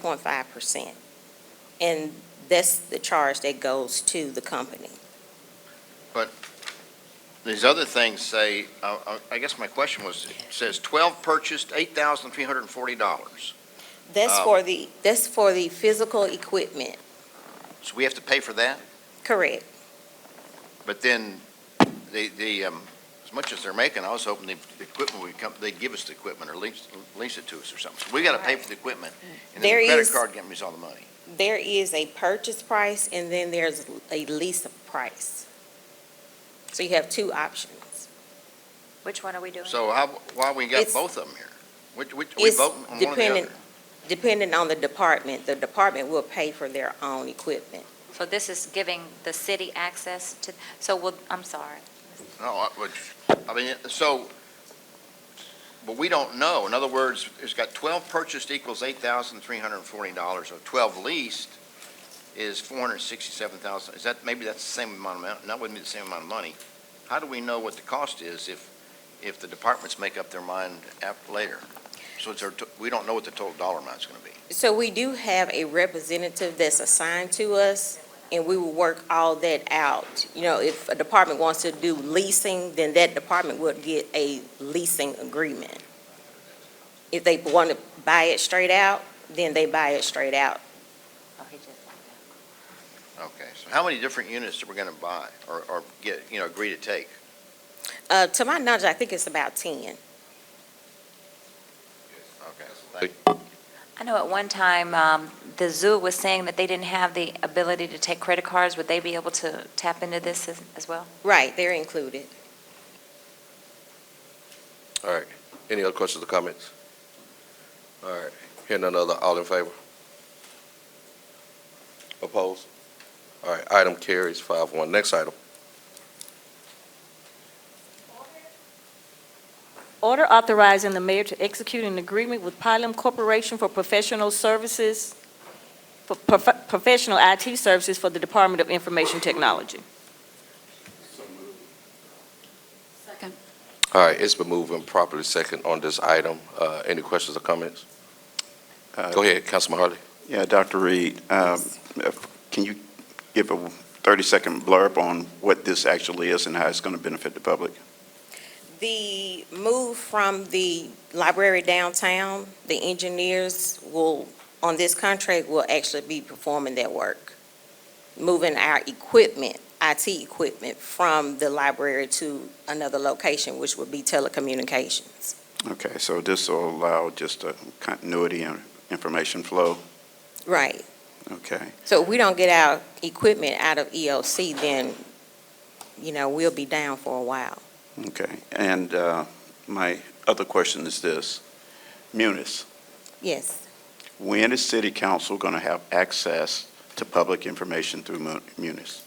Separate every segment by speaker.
Speaker 1: point five percent. And that's the charge that goes to the company.
Speaker 2: These other things say, I I- I guess my question was, it says 12 purchased, $8,340.
Speaker 1: That's
Speaker 2: Oh.
Speaker 1: for the, that's for the physical equipment,
Speaker 2: So we have to pay for that?
Speaker 1: correct?
Speaker 2: But then, the, the um, as much as they're making, I was hoping the the equipment would come, they'd give us the equipment or lease, lease it to us or something. So we got to pay for the equipment, and then
Speaker 1: There
Speaker 2: the credit
Speaker 1: is-
Speaker 2: card company's all the money.
Speaker 1: There is a purchase price and then there's a lease price. So you have two options.
Speaker 3: Which one are we doing?
Speaker 2: So how, why we got
Speaker 1: It's-
Speaker 2: both of them here? Which- which- We
Speaker 1: It's
Speaker 2: vote on one or the
Speaker 1: dependent,
Speaker 2: other?
Speaker 1: depending on the department, the department will pay for their own equipment.
Speaker 3: So this is giving the city access to, so we'll, I'm sorry.
Speaker 2: No, I which- I mean, so, but we don't know. In other words, it's got 12 purchased equals $8,340, or 12 leased is 467,000. Is that, maybe that's the same amount of, amount- that wouldn't be the same amount of money. How do we know what the cost is if, if the departments make up their mind after, later? So it's, our to- we don't know what the total dollar amount's going to be.
Speaker 1: So we do have a representative that's assigned to us, and we will work all that out. You know, if a department wants to do leasing, then that department would get a leasing agreement. If they want to buy it straight out, then they buy it straight out.
Speaker 3: Oh, he just-
Speaker 2: Okay, so how many different units are we going to buy or, or get, you know, agree to take?
Speaker 1: Uh, to my knowledge, I think it's about ten.
Speaker 2: Okay, thank you.
Speaker 3: I know at one time, um, the zoo was saying that they didn't have the ability to take credit cards. Would they be able to tap into this as, as well?
Speaker 1: Right, they're included.
Speaker 4: All right. Any other questions or comments? All right. Hearing none other, all in favor? Opposed? All right, item carries five one. Next item.
Speaker 5: Order authorizing the mayor to execute an agreement with Pylum Corporation for professional services, for prof- professional IT services for the Department of Information Technology.
Speaker 4: All right, it's been moved and properly second on this item. Uh, any questions or comments?
Speaker 6: Uh,
Speaker 4: Go ahead, Councilman Harley.
Speaker 6: Yeah, Dr. Reed, um, if- can you give a 30-second blurb on what this actually is and how it's going to benefit the public?
Speaker 1: The move from the library downtown, the engineers will, on this contract, will actually be performing that work. Moving our equipment, IT equipment, from the library to another location, which would be telecommunications.
Speaker 6: Okay, so this will allow just a continuity and information flow,
Speaker 1: Right.
Speaker 6: okay?
Speaker 1: So if we don't get our equipment out of EOC, then, you know, we'll be down for a while.
Speaker 6: Okay, and uh, my other question is this. Munis,
Speaker 1: Yes.
Speaker 6: when is city council going to have access to public information through Mu- Munis?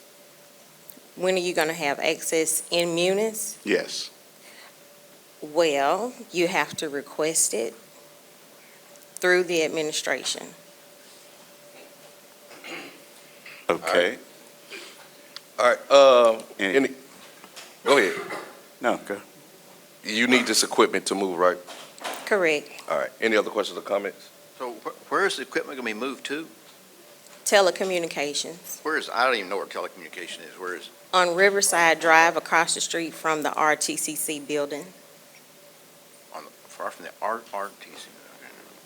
Speaker 1: When are you going to have access in Munis?
Speaker 6: Yes,
Speaker 1: Well, you have to request it through the administration.
Speaker 6: okay.
Speaker 4: All right, uh,
Speaker 6: And-
Speaker 4: any, go ahead.
Speaker 6: No, go.
Speaker 4: You need this equipment to move, right?
Speaker 1: Correct.
Speaker 4: All right. Any other questions or comments?
Speaker 2: So wh- where is the equipment going to be moved to?
Speaker 1: Telecommunications
Speaker 2: Where is, I don't even know where telecommunication is, where is,
Speaker 1: on Riverside Drive across the street from the RTCC building.
Speaker 2: on, the- far from the R, RTC?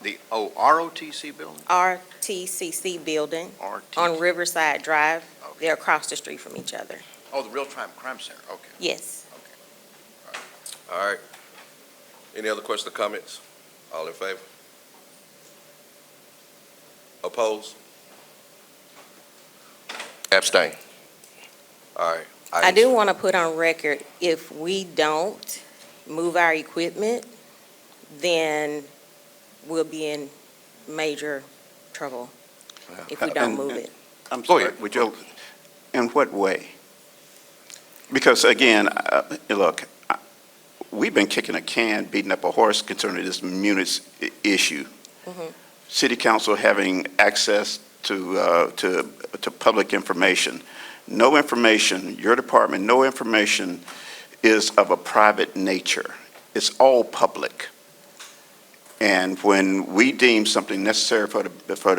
Speaker 2: The, oh, ROTC building?
Speaker 1: RTCC building on
Speaker 2: RTC.
Speaker 1: Riverside Drive.
Speaker 2: Okay.
Speaker 1: They're across the street from each other.
Speaker 2: Oh, the Real Time Crime Center, okay.
Speaker 1: Yes.
Speaker 4: All right. Any other questions or comments? All in favor? Opposed? Abstain. All right.
Speaker 1: I do want to put on record, if we don't move our equipment, then we'll be in major trouble if we don't
Speaker 6: Uh, And-
Speaker 1: move
Speaker 6: and-
Speaker 1: it.
Speaker 6: I'm
Speaker 4: Go
Speaker 6: sorry,
Speaker 4: ahead.
Speaker 6: would you, in what way? Because again, uh, look, I- we've been kicking a can, beating up a horse concerning this Munis i- issue. Mm-hmm.
Speaker 1: Mhm.
Speaker 6: City council having access to, uh, to, to public information. No information, your department, no information is of a private nature. It's all public. And when we deem something necessary for the, for the